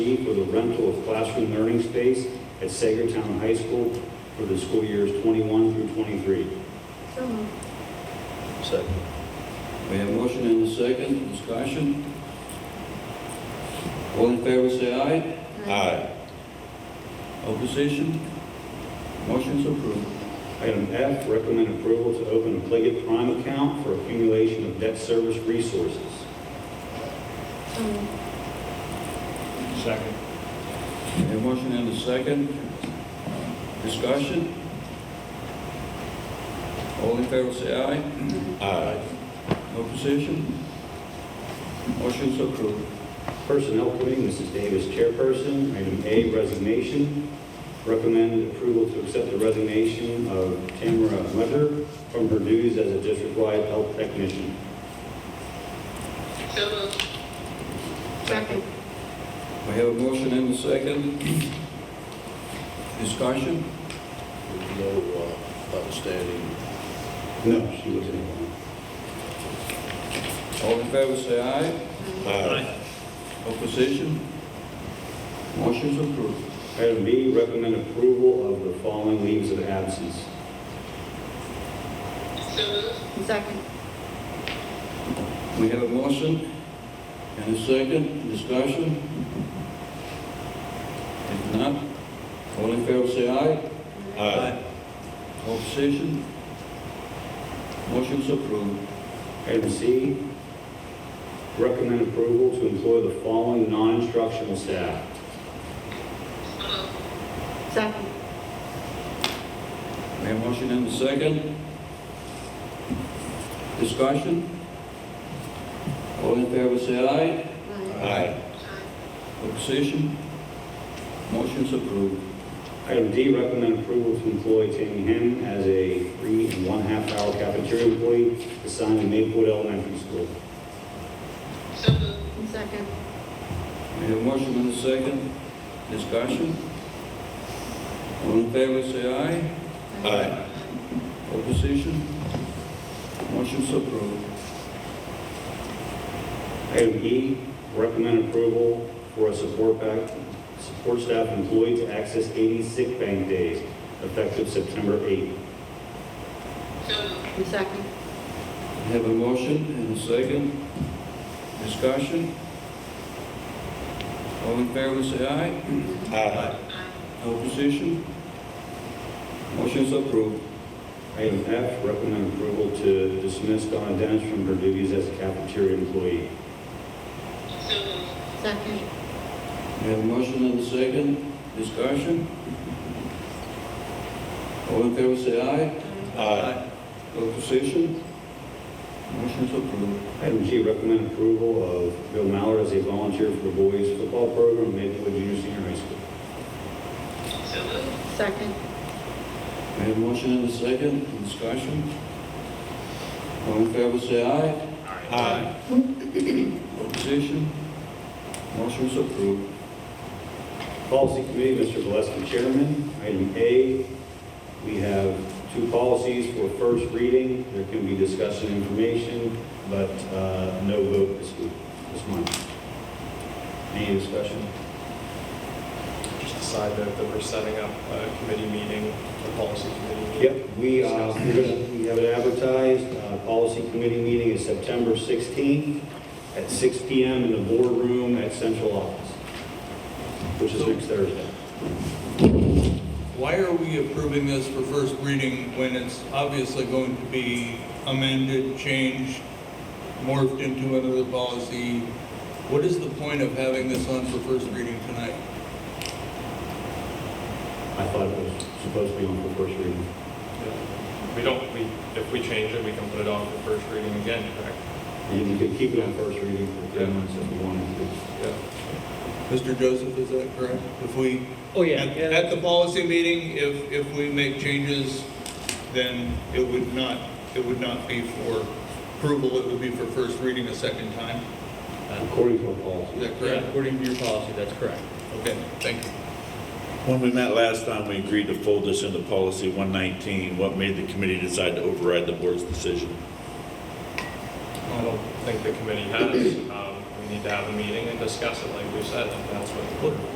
money for the rental of classroom learning space at Sagertown High School for the school years 21 through 23. So moved. Second. We have a motion and a second, discussion. All in favor, say aye. Aye. Opposition? Motion's approved. Item F, recommend approval to open a Pliget Prime account for accumulation of debt service resources. So moved. Second. We have a motion and a second, discussion. All in favor, say aye. Aye. Opposition? Motion's approved. Personnel Committee, Mrs. Davis, chairperson. Item A, resignation. Recommend approval to accept the resignation of Tamara Mutter from her duties as a district-wide health technician. So moved. Second. We have a motion and a second, discussion. With no uh, outstanding. No, she was in. All in favor, say aye. Aye. Opposition? Motion's approved. Item B, recommend approval of the following leaves of absence. So moved. Second. We have a motion and a second, discussion. If not, all in favor, say aye. Opposition? Motion's approved. Item C, recommend approval to employ the following non-instructional staff. Second. We have a motion and a second, discussion. All in favor, say aye. Aye. Opposition? Motion's approved. Item D, recommend approval to employ Tammy Henn as a three and one-half hour cafeteria employee assigned to Maplewood Elementary School. So moved. Second. We have a motion and a second. Discussion? All in favor, say aye. Aye. Opposition? Motion's approved. Item E, recommend approval for a support back, support staff employee to access 80 sick bank days effective September 8th. So moved. Second. We have a motion and a second. Discussion? All in favor, say aye. Aye. Opposition? Motion's approved. Item F, recommend approval to dismiss Donna Dennis from her duties as a cafeteria employee. So moved. Second. We have a motion and a second. Discussion? All in favor, say aye. Aye. Opposition? Motion's approved. Item G, recommend approval of Bill Mallard as a volunteer for the boys football program at Maplewood Junior Senior High School. So moved. Second. We have a motion and a second, discussion. All in favor, say aye. Aye. Opposition? Motion's approved. Policy Committee, Mr. Valesky, Chairman. Item A, we have two policies for first reading. There can be discussion information, but uh, no vote this week, this month. Any discussion? just decide that, that we're setting up a committee meeting, a policy committee meeting. Yep, we, uh, we're gonna- we have it advertised. Uh, Policy Committee meeting is September 16th at 6 PM in the boardroom at Central Office, which is next Thursday. Why are we approving this for first reading when it's obviously going to be amended, changed, morphed into another policy? What is the point of having this on for first reading tonight? I thought it was supposed to be on for first reading. We don't, we, if we change it, we can put it on for first reading again, correct? And you could keep it on first reading for three months if you wanted to. Yeah. Mr. Joseph, is that correct? If we, Oh, yeah. at yeah, at the policy meeting, if, if we make changes, then it would not, it would not be for approval, it would be for first reading a second time? According to our policy. Is that yeah, correct? According to your policy, that's correct. Okay, thank you. When we met last time, we agreed to fold this into policy 119. What made the committee decide to override the board's decision? I don't think the committee has, um, we need to have a meeting and discuss it like we said, and that's what.